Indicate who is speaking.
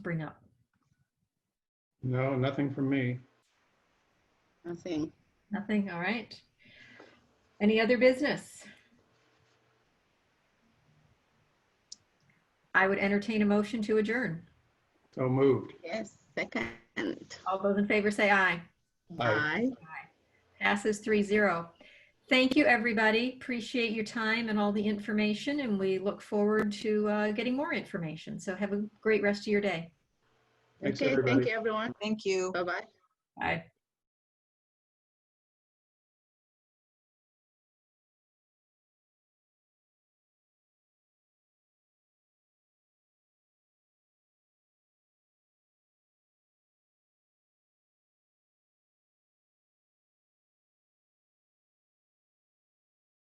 Speaker 1: No, nothing from me.
Speaker 2: Nothing.
Speaker 3: Nothing, all right. Any other business? I would entertain a motion to adjourn.
Speaker 1: So moved.
Speaker 2: Yes, second.
Speaker 3: All those in favor say aye.
Speaker 1: Aye.
Speaker 2: Aye.
Speaker 3: Passes three zero. Thank you, everybody. Appreciate your time and all the information, and we look forward to uh, getting more information. So have a great rest of your day.
Speaker 1: Thanks,
Speaker 2: Okay,
Speaker 1: everybody.
Speaker 2: thank you, everyone.
Speaker 4: Thank you.
Speaker 2: Bye-bye.
Speaker 3: Bye.